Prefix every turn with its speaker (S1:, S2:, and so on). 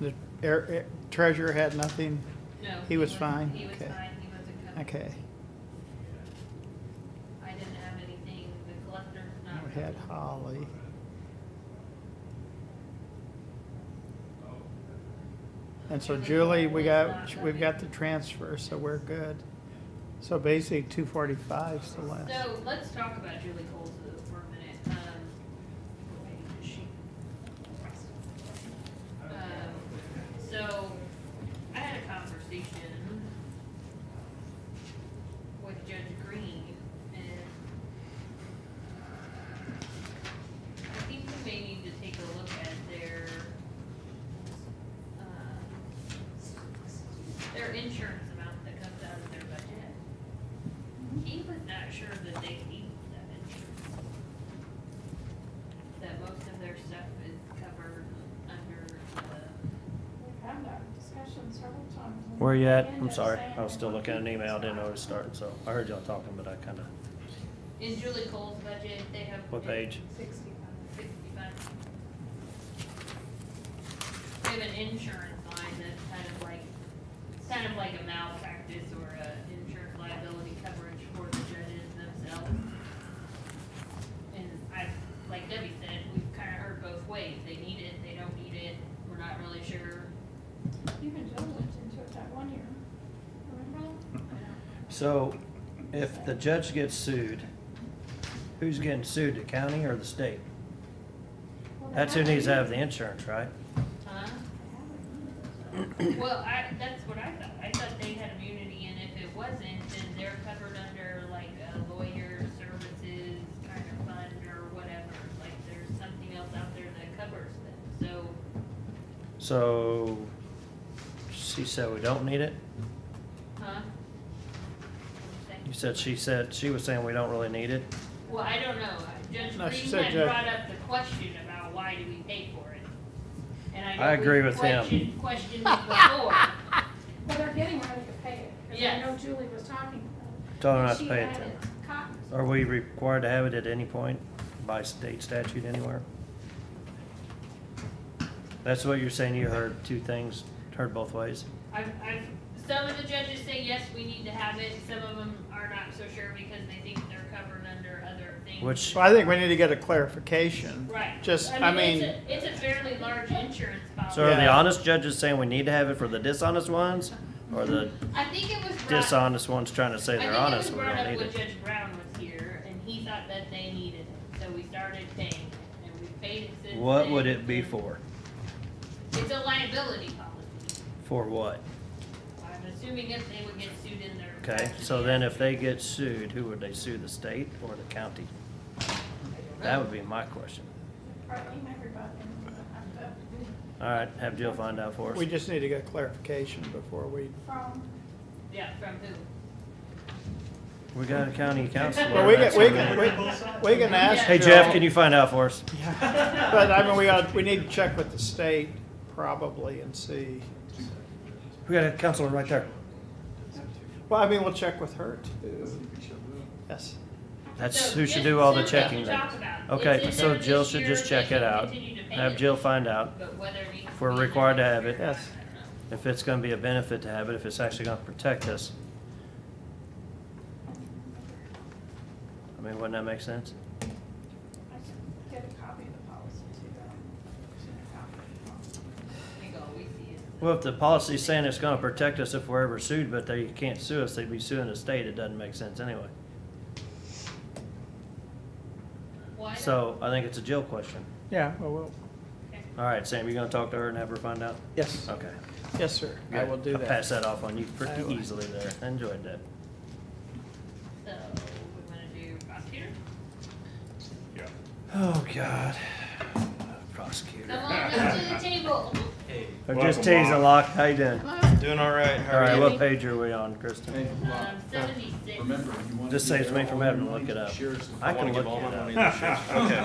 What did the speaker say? S1: The air- air- treasurer had nothing?
S2: No.
S1: He was fine?
S2: He was
S1: Okay.
S2: fine, he wasn't covered.
S1: Okay.
S2: I didn't have anything, the collector's not.
S1: We had Holly. And so Julie, we got, we've got the transfer, so we're good. So basically, two forty-five's the last.
S2: So let's talk about Julie Coles for a minute. Um, what page is she? Um, So I had a conversation with Judge Green and I think we may need to take a look at their, um, their insurance amount that comes out of their budget. He was not sure that they need that insurance. That most of their stuff is covered under the,
S3: We've had that discussion several times. and
S4: Where you at?
S3: we
S4: I'm
S3: end
S4: sorry,
S3: up saying
S4: I was still
S3: we're
S4: looking at an
S3: keeping
S4: email, I
S3: it
S4: didn't know where to
S3: separate.
S4: start, so I heard y'all talking, but I kinda,
S2: in Julie Cole's budget, they have.
S4: what page?
S2: Sixty-five. They have an insurance line that's kind of like, it's kind of like a malpractice or a insurance liability coverage for the judges themselves. And I, like Debbie said, we've kind of heard both ways, they need it, they don't need it, we're not really sure.
S3: Even Joe looked into it that one year. Remember?
S4: So, if the judge gets sued, who's getting sued, the county or the state?
S3: Well, they
S4: That's who needs to have the
S3: it.
S4: insurance, right?
S2: Huh?
S3: They have it.
S2: Well, I, that's what I thought, I thought they had immunity, and if it wasn't, then they're covered under like a lawyer services kind of fund or whatever, like there's something else out there that covers them, so,
S4: So, she said we don't need it?
S2: huh?
S4: You said she said, she was saying we don't really need it?
S2: Well, I don't know, Judge
S1: No, she
S2: Green
S1: said
S2: had
S1: Judge-
S2: brought up the question about why do we pay for it? And I know
S4: I agree
S2: we've
S4: with him.
S2: questioned- Questioned it before,
S3: Well, they're getting ready to pay it. 'cause
S2: Yes.
S3: I know Julie was talking about it.
S4: Told her
S3: and
S4: not to
S3: she
S4: pay it
S3: added
S4: then.
S3: Cotton.
S4: Are we required to have it at any point by state statute anywhere? That's what you're saying, you heard two things, heard both ways?
S2: I've, I've, some of the judges say, yes, we need to have it, some of them are not so sure because they think they're covered under other things.
S4: Which,
S1: Well, I think we need to get a clarification.
S2: Right.
S1: Just, I mean,
S2: it's a- It's a fairly large insurance
S4: so are
S2: policy.
S4: the
S1: Yeah.
S4: honest judges saying we need to have it for the dishonest ones? Or the
S2: I think it was brought,
S4: dishonest ones trying to
S2: I
S4: say
S2: think
S4: they're
S2: it was
S4: honest, and we
S2: brought
S4: don't
S2: up
S4: need
S2: when
S4: it?
S2: Judge Brown was here, and he thought that they needed it, so we started paying it, and we've paid it since
S4: What
S2: then,
S4: would it be
S2: and
S4: for?
S2: It's a liability policy.
S4: For what?
S2: I'm assuming if they would get sued in their.
S4: Okay, so then if they get sued, who would they sue, the state or the county? That would be my question.
S3: Probably everybody. in the- I'm the-
S4: All right, have Jill find out for us.
S1: we just need to get clarification before we,
S3: From,
S2: Yeah, from who?
S4: We got a county counselor.
S1: well, we
S4: that's
S1: can, we
S4: gonna
S1: can,
S4: be-
S1: we- we can ask.
S4: Hey Jeff,
S1: Jill.
S4: can you find out for us?
S1: But I mean, we ought, we need to check with the state probably and see.
S4: We got a counselor right there.
S1: Well, I mean, we'll check with her too. Yes.
S4: That's
S2: So
S4: who should
S2: just
S4: do all the
S2: something to
S4: checking
S2: talk
S4: then.
S2: about. It's
S4: Okay,
S2: in
S4: so
S2: there
S4: Jill
S2: this
S4: should
S2: year,
S4: just
S2: they
S4: check
S2: can
S4: it out.
S2: continue to pay
S4: Have
S2: it,
S4: Jill find out
S2: But whether it needs.
S4: if we're
S2: be in the
S4: required to
S2: next
S4: have
S2: year,
S4: it.
S2: I don't
S1: Yes.
S2: know.
S4: if it's gonna be a benefit to have it, if it's actually gonna protect us. I mean, wouldn't that make sense?
S3: I can get a copy of the policy too. um, send a copy of the policy.
S2: I think all we see is.
S4: Well, if the policy's saying it's gonna protect us if we're ever sued, but they can't sue us, they'd be suing the state, it doesn't make sense anyway.
S2: Well, I don't-
S4: So I think it's a Jill question.
S1: Yeah, well, we'll,
S4: All right, Sam, you gonna talk to her and have her find out?
S1: yes,
S4: Okay.
S1: yes, sir. I will do
S4: I'll Pass
S1: that.
S4: that off on you
S1: I
S4: pretty
S1: will.
S4: easily there. I Enjoyed that.
S2: So, we wanna do uh, prosecutor?
S5: Yeah.
S4: Oh, God. Prosecutor.
S2: Someone come to the table.
S4: I'm
S5: Welcome,
S4: just teasing,
S5: Mom.
S4: Locke. How you doing?
S5: Doing all right. How
S4: All
S5: are
S4: right,
S5: you?
S4: what page are we on, Kristen?
S2: Um, seventy-six.
S6: Remember, you want.
S4: This saves me from having to look it up. I
S6: I
S4: can
S6: want to
S4: look
S6: give all
S4: it
S6: my
S4: up.
S6: money to the sheriff's.
S5: Okay.